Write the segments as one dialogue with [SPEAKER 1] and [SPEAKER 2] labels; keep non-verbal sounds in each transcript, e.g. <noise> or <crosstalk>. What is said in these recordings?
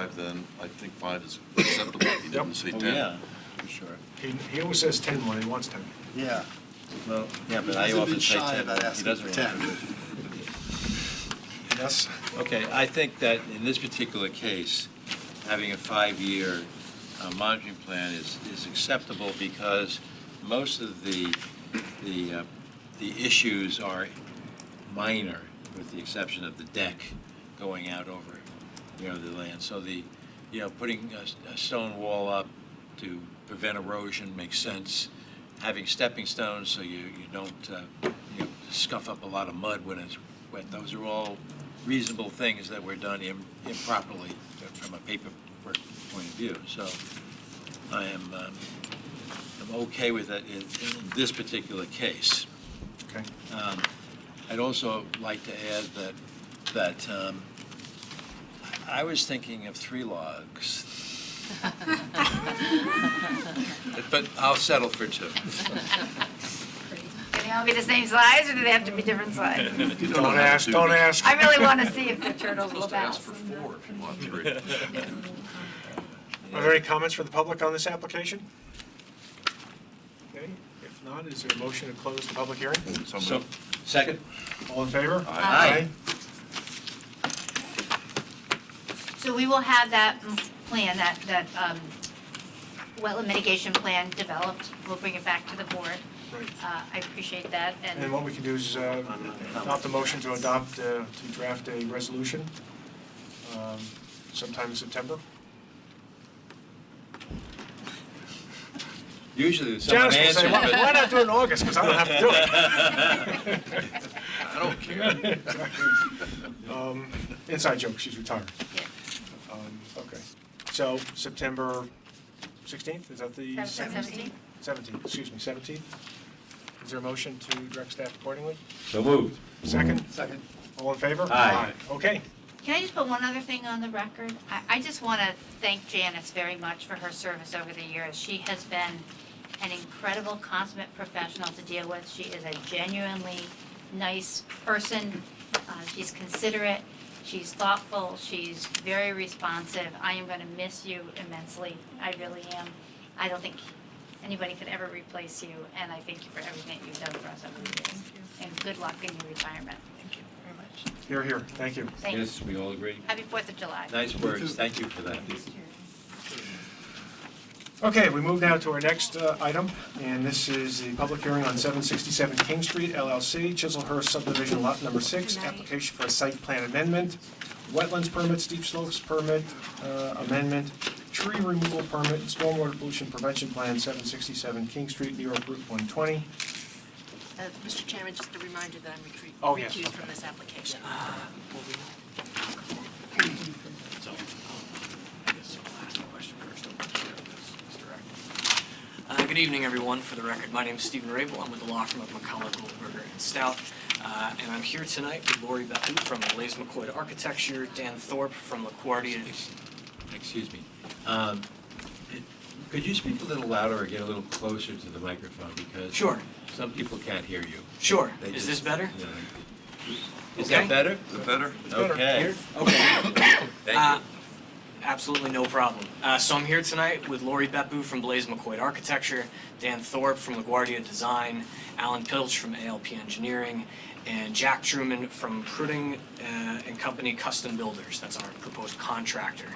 [SPEAKER 1] five, then I think five is acceptable. He didn't
[SPEAKER 2] Yep.
[SPEAKER 1] say
[SPEAKER 3] Oh,
[SPEAKER 1] 10.
[SPEAKER 3] Yeah, for sure.
[SPEAKER 2] He, he always says 10 when he wants 10.
[SPEAKER 3] Yeah, well, yeah,
[SPEAKER 4] He
[SPEAKER 3] but I
[SPEAKER 4] hasn't
[SPEAKER 3] often
[SPEAKER 4] been
[SPEAKER 3] say 10.
[SPEAKER 4] shy about
[SPEAKER 3] He
[SPEAKER 4] asking
[SPEAKER 3] doesn't
[SPEAKER 4] for
[SPEAKER 3] want
[SPEAKER 4] 10.
[SPEAKER 2] Yes.
[SPEAKER 3] Okay, I think that in this particular case, having a five-year uh, monitoring plan is, is acceptable because most of the, the, uh, the issues are minor, with the exception of the deck going out over, you know, the land. So the, you know, putting a, s- a stone wall up to prevent erosion makes sense. Having stepping stones so you, you don't, uh, you know, scuff up a lot of mud when it's wet. Those are all reasonable things that were done im- improperly uh, from a paperwork point of view. So I am, um, I'm okay with that in, in this particular case.
[SPEAKER 2] Okay.
[SPEAKER 3] Um, I'd also like to add that, that um, I was thinking of three logs, but I'll settle for two.
[SPEAKER 5] Can they all be the same size, or do they have to be
[SPEAKER 2] <laughs>
[SPEAKER 5] different size?
[SPEAKER 1] <laughs> You don't know how
[SPEAKER 2] Don't
[SPEAKER 1] to
[SPEAKER 2] ask,
[SPEAKER 1] do
[SPEAKER 2] don't
[SPEAKER 1] this.
[SPEAKER 2] ask.
[SPEAKER 5] I really want to see if the
[SPEAKER 1] You're
[SPEAKER 5] turtles will
[SPEAKER 1] supposed to ask for
[SPEAKER 5] bounce.
[SPEAKER 1] four if you want three.
[SPEAKER 3] <laughs>
[SPEAKER 2] Are there any comments for the public on this application? Okay, if not, is there a motion to close the public hearing?
[SPEAKER 3] So,
[SPEAKER 1] Somebody-
[SPEAKER 3] second?
[SPEAKER 2] All in favor?
[SPEAKER 3] Aye.
[SPEAKER 5] So we will have that mm, plan, that, that um, wetland mitigation plan developed. We'll bring it back to the board.
[SPEAKER 2] Right.
[SPEAKER 5] Uh, I appreciate that,
[SPEAKER 2] And
[SPEAKER 5] and
[SPEAKER 2] what we can do is uh, adopt a motion to adopt, uh, to draft a resolution um, sometime in September.
[SPEAKER 3] Usually if someone
[SPEAKER 2] Janice will say,
[SPEAKER 3] answers,
[SPEAKER 2] why why
[SPEAKER 3] but
[SPEAKER 2] not do it in August, because I don't have to do it.
[SPEAKER 1] I don't care.
[SPEAKER 2] <laughs> Um, Inside joke, she's retired.
[SPEAKER 5] Yeah.
[SPEAKER 2] Um, Okay, so September 16th, is that the?
[SPEAKER 5] September 17th.
[SPEAKER 2] 17th, excuse me, 17th. Is there a motion to direct staff accordingly?
[SPEAKER 3] So moved.
[SPEAKER 2] Second?
[SPEAKER 4] Second.
[SPEAKER 2] All in favor?
[SPEAKER 3] Aye.
[SPEAKER 2] Okay.
[SPEAKER 5] Can I just put one other thing on the record? I, I just want to thank Janice very much for her service over the years. She has been an incredible consummate professional to deal with. She is a genuinely nice person. Uh, She's considerate, she's thoughtful, she's very responsive. I am going to miss you immensely. I really am. I don't think anybody could ever replace you, and I thank you for everything that you've done for us over the years. And good luck in your retirement. Thank you very much.
[SPEAKER 2] Here, here, thank you.
[SPEAKER 5] Thank you.
[SPEAKER 3] Yes, we all agree.
[SPEAKER 5] Happy Fourth of July.
[SPEAKER 3] Nice words, thank you for that.
[SPEAKER 2] Okay, we move now to our next uh, item, and this is the public hearing on 767 King Street LLC, Chiselhurst subdivision lot number six, application for a site plan amendment, wetlands permit, steep slopes permit uh, amendment, tree removal permit, and stormwater pollution prevention plan, 767 King Street, New York Route 120.
[SPEAKER 6] Uh, Mr. Chairman, just a reminder that I'm recre-
[SPEAKER 2] Oh, yes,
[SPEAKER 6] recused
[SPEAKER 2] okay.
[SPEAKER 6] from this application.
[SPEAKER 7] Uh, Good evening, everyone. For the record, my name is Stephen Rabel. I'm with the law firm of McCullough Goldberger and Stout. Uh, And I'm here tonight with Lori Behu from Lays McCoy Architecture, Dan Thorpe from LaGuardia.
[SPEAKER 3] Excuse me. Um, it- Could you speak a little louder or get a little closer to the microphone because?
[SPEAKER 7] Sure.
[SPEAKER 3] Some people can't hear you.
[SPEAKER 7] Sure.
[SPEAKER 3] They
[SPEAKER 7] Is
[SPEAKER 3] just-
[SPEAKER 7] this better?
[SPEAKER 3] you know, Is that
[SPEAKER 7] Okay.
[SPEAKER 3] better?
[SPEAKER 1] Is it better?
[SPEAKER 3] Okay.
[SPEAKER 7] Okay. Uh,
[SPEAKER 3] Thank
[SPEAKER 7] Absolutely no problem. Uh, so I'm here tonight with Lori Beppu from Blaze McCoy Architecture, Dan Thorpe from LaGuardia Design, Alan Pilch from ALP Engineering, and Jack Truman from Pruding uh, and Company Custom Builders. That's our proposed contractor.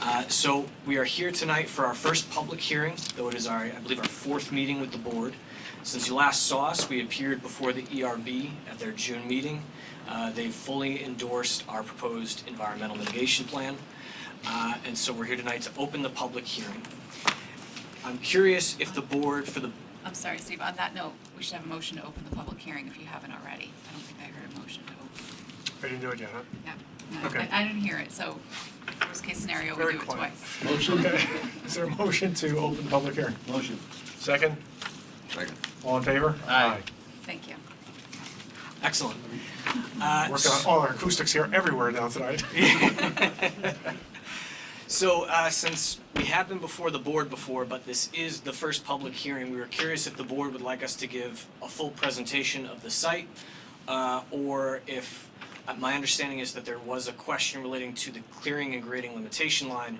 [SPEAKER 7] Uh, so we are here tonight for our first public hearing, though it is our, I believe, our fourth meeting with the board. Since you last saw us, we appeared before the ERB at their June meeting. Uh, they fully endorsed our proposed environmental mitigation plan. Uh, And so we're here tonight to open the public hearing. I'm curious if the board for the,
[SPEAKER 8] I'm sorry, Steve, on that note, we should have a motion to open the public hearing if you haven't already. I don't think I heard a motion to open.
[SPEAKER 2] I didn't do it yet, huh?
[SPEAKER 8] Yeah, no,
[SPEAKER 2] Okay.
[SPEAKER 8] I I didn't hear it, so worst case scenario, we
[SPEAKER 2] Very
[SPEAKER 8] do it
[SPEAKER 2] quiet.
[SPEAKER 8] twice.
[SPEAKER 2] Okay. Is there a motion to open the public hearing?
[SPEAKER 3] you. Motion.
[SPEAKER 2] Second?
[SPEAKER 1] Second.
[SPEAKER 2] All in favor?
[SPEAKER 3] Aye.
[SPEAKER 8] Thank you.
[SPEAKER 7] excellent. Uh,
[SPEAKER 2] Working on all our acoustics here everywhere now tonight. <laughs>
[SPEAKER 7] <laughs> So, uh, since we have been before the board before, but this is the first public hearing, we were curious if the board would like us to give a full presentation of the site, uh, or if Uh, My understanding is that there was a question relating to the clearing and grading limitation line,